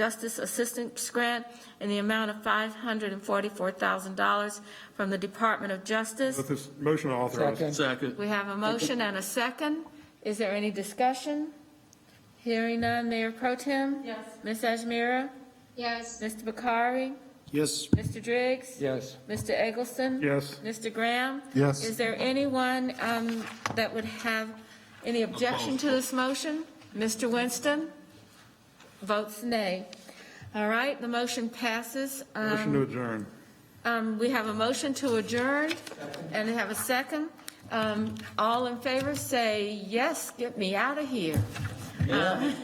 Justice Assistance Grant in the amount of $544,000 from the Department of Justice. With this motion authorized. Second. Second. We have a motion and a second. Is there any discussion? Hearing none, Mayor Pro Tem? Yes. Ms. Ajmira? Yes. Mr. Bakari? Yes. Mr. Driggs? Yes. Mr. Eggleston? Yes. Mr. Graham? Yes. Is there anyone um, that would have any objection to this motion? Mr. Winston? Votes nay. All right, the motion passes. Um, Motion to adjourn. um, We have a motion to adjourn, and we have a second. Um, All in favor, say yes, get me out of here. Um,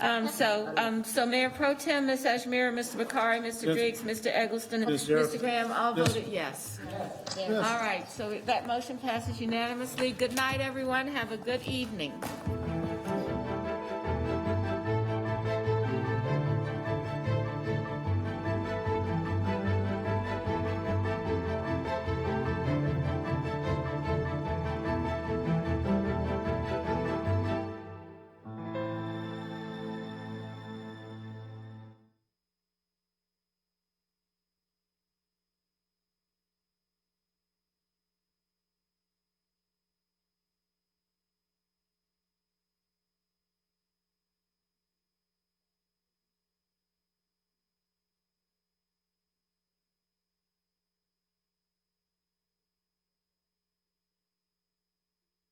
um, So, um, so Mayor Pro Tem, Ms. Ashmira, Mr. Bakari, Mr. Griggs, Mr. Eggleston, Yes, yes. Mr. Graham, all Yes. voted yes. All right, so that motion passes unanimously. Good night, everyone, have a good evening.